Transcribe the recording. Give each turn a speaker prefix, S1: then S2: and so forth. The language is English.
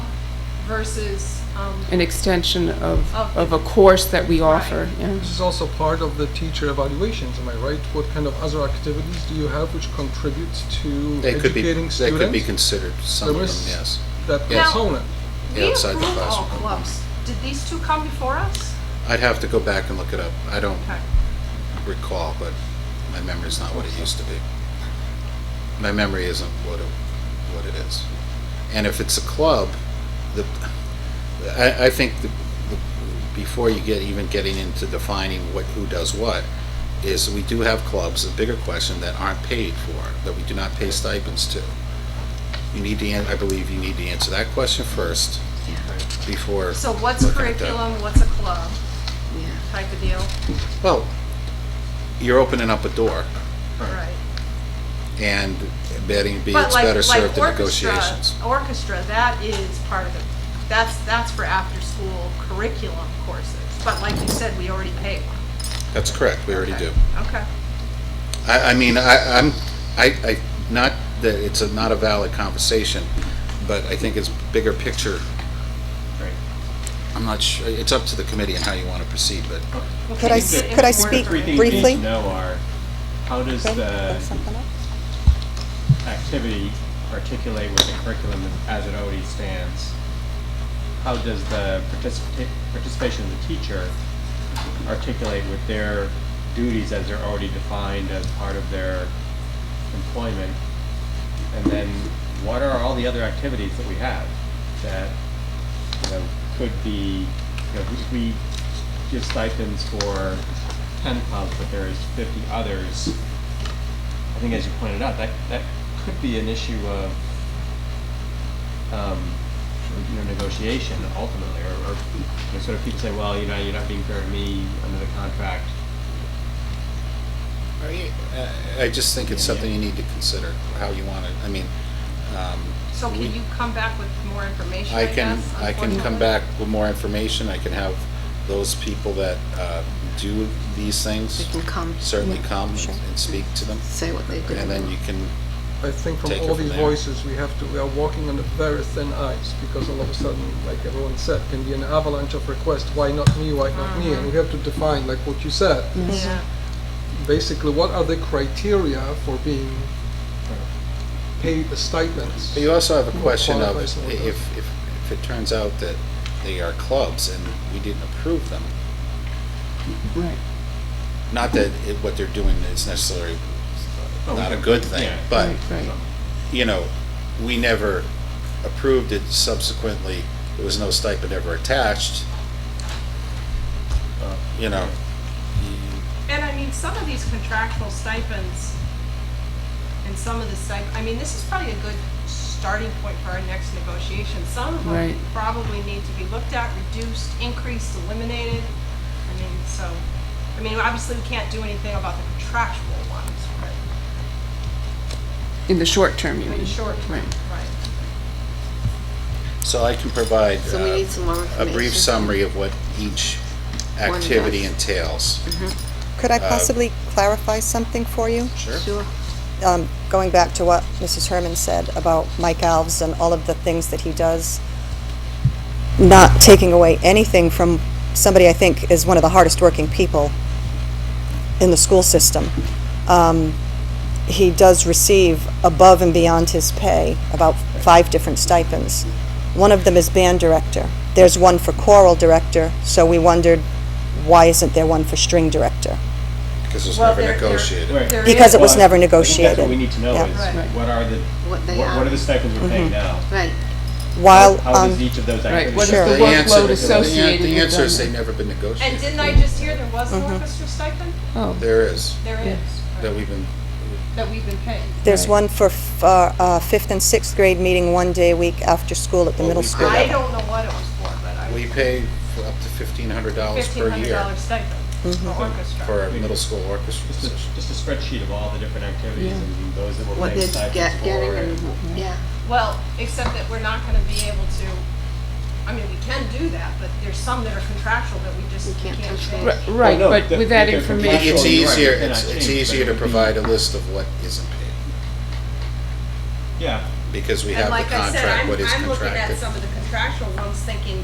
S1: versus, um,
S2: an extension of,
S1: Of-
S2: of a course that we
S1: Right.
S2: offer, yeah.
S3: This is also part of the teacher evaluations, am I right? What kind of other activities do you have which contributes to
S4: They could be,
S3: educating
S4: they could be
S3: students?
S4: considered, some of
S3: There
S4: them,
S3: was-
S4: yes.
S3: That
S4: Yes.
S3: component,
S1: we
S4: outside the
S1: approve all
S4: classroom.
S1: clubs. Did these two come before us?
S4: I'd have to go back and look it up. I don't
S1: Okay.
S4: recall, but my memory's not what it used to be. My memory isn't what it, what it is. And if it's a club, the, I, I think the, the, before you get, even getting into defining what, who does what, is we do have clubs, a bigger question, that aren't paid for, that we do not pay stipends to. You need to, an- I believe you need to answer that question first before.
S1: So what's
S4: looking at that.
S1: curriculum, what's a club type of deal?
S4: Well, you're opening up a door.
S1: Right.
S4: and betting be
S1: But
S4: it's
S1: like,
S4: better
S1: like
S4: served in
S1: orchestra,
S4: negotiations.
S1: orchestra, that is part of the, that's, that's for after-school curriculum courses. But like you said, we already pay one.
S4: That's correct, we already
S1: Okay.
S4: do.
S1: Okay.
S4: I, I mean, I, I'm, I, I, not that it's a, not a valid conversation, but I think it's bigger picture. I'm not sure, it's up to the committee and how you want to proceed, but
S5: Could I, s- could I speak
S6: Three things you need
S5: briefly?
S6: to know are, how does
S5: Okay, look
S6: the
S5: something up.
S6: activity articulate with the curriculum as it already stands? How does the participa- participation of the teacher articulate with their duties as they're already defined as part of their employment? And then what are all the other activities that we have that, you know, could be, you know, we- we give stipends for ten clubs, but there is fifty others. I think as you pointed out, that, that could be an issue of, um, you know, negotiation ultimately, or, or, you know, sort of people say, well, you know, you're not being fair to me under the contract.
S4: I- I just think it's something you need to consider, how you want it, I mean, um,
S1: So
S4: we-
S1: can you come back with more information,
S4: I
S1: I
S4: can,
S1: guess,
S4: I can come
S1: unfortunately?
S4: back with more information, I can have those people that, uh, do these
S7: They
S4: things
S7: can come,
S4: certainly come
S5: sure.
S4: and speak to them.
S7: say what they did.
S4: And then you can,
S3: I think from
S4: Take it
S3: all
S4: from
S3: these
S4: there.
S3: voices, we have to, we are walking on a very thin ice because all of a sudden, like everyone said, can be an avalanche of requests, why not me, why not me? And we have to define, like what you said,
S1: Yeah.
S3: basically, what are the criteria for being paid the stipends?
S4: but you also have a
S3: Well,
S4: question of
S3: qualifies and
S4: if,
S3: all
S4: if, if it turns out that they are clubs and we didn't approve them,
S2: Right.
S4: not that it- what they're doing is necessarily
S6: Oh,
S4: not a
S6: yeah.
S4: good thing,
S6: Yeah.
S4: but,
S2: Right, right.
S4: you know, we never approved it subsequently, there was no stipend ever attached. You know,
S1: And I mean, some of these contractual stipends and some of the stipend, I mean, this is probably a good starting point for our next negotiation. Some of them
S2: Right.
S1: probably need to be looked at, reduced, increased, eliminated. I mean, so, I mean, obviously, we can't do anything about the contractual ones, but
S2: In the short term, you
S1: in
S2: mean?
S1: the short term,
S2: Right.
S1: right?
S4: so I can provide
S7: So we
S4: uh,
S7: need some more
S4: a
S7: information.
S4: brief summary of what each activity
S7: does.
S4: entails.
S5: Could I
S4: Uh,
S5: possibly clarify something for you?
S4: Sure.
S7: Sure.
S5: Um, Going back to what Mrs. Herman said about Mike Alves and all of the things that he does, not taking away anything from somebody I think is one of the hardest-working people in the school system. Um, He does receive above and beyond his pay about five different stipends. One of them is band director. There's one for choral director, so we wondered, why isn't there one for string director?
S4: Because it's
S1: Well,
S4: never
S1: they're- they're-
S4: negotiated.
S6: Right.
S1: There
S5: Because
S1: is
S5: it was
S1: one-
S5: never
S6: I think that's
S5: negotiated.
S6: what we need to know
S5: Yeah.
S1: Right.
S6: is, what are the,
S7: What they
S6: what what
S7: are.
S6: are the stipends we're paying now?
S7: Right.
S5: While,
S6: How
S5: um,
S6: does each of those
S2: Right,
S6: activities?
S2: what is
S5: Sure.
S2: the
S4: The answer,
S2: workload
S4: the an-
S2: associated
S4: the
S2: with
S4: answer is
S2: them?
S4: they've never been
S1: And
S4: negotiated.
S1: didn't I just hear there was
S2: Uh-huh.
S1: an orchestra stipend?
S2: Oh,
S4: There is,
S1: There is,
S4: that we've been,
S1: that we've been paid.
S5: there's one for f- uh, uh, fifth and sixth grade meeting one day a week after school at the
S4: Well,
S5: middle
S4: we
S5: school.
S1: I
S4: Yeah.
S1: don't know what it was for, but I.
S4: we pay for up to fifteen hundred dollars
S1: Fifteen
S4: per
S1: hundred
S4: year
S1: dollar stipend for
S2: Mm-hmm.
S1: orchestra.
S4: for a middle school orchestra
S6: Just
S4: position.
S6: a, just a spreadsheet of all the different activities and those that we're
S7: What
S6: paying
S7: they're
S6: stipends
S7: get-
S6: for.
S7: getting
S6: and-
S7: and, yeah.
S1: Well, except that we're not gonna be able to, I mean, we can do that, but there's some that are contractual that we just
S7: We
S1: can't
S7: can't touch
S1: change.
S2: Ri- right,
S6: Oh, no,
S2: but
S6: the-
S2: with that
S6: the- the
S2: information.
S4: It's
S6: Actually, you're right,
S4: easier,
S6: it cannot
S4: it's, it's
S6: change,
S4: easier to
S6: but it would be-
S4: provide a list of what isn't paid,
S6: Yeah.
S4: because we
S1: And
S4: have
S1: like
S4: the
S1: I said,
S4: contract,
S1: I'm,
S4: what is
S1: I'm looking at
S4: contracted.
S1: some of the contractual one's thinking,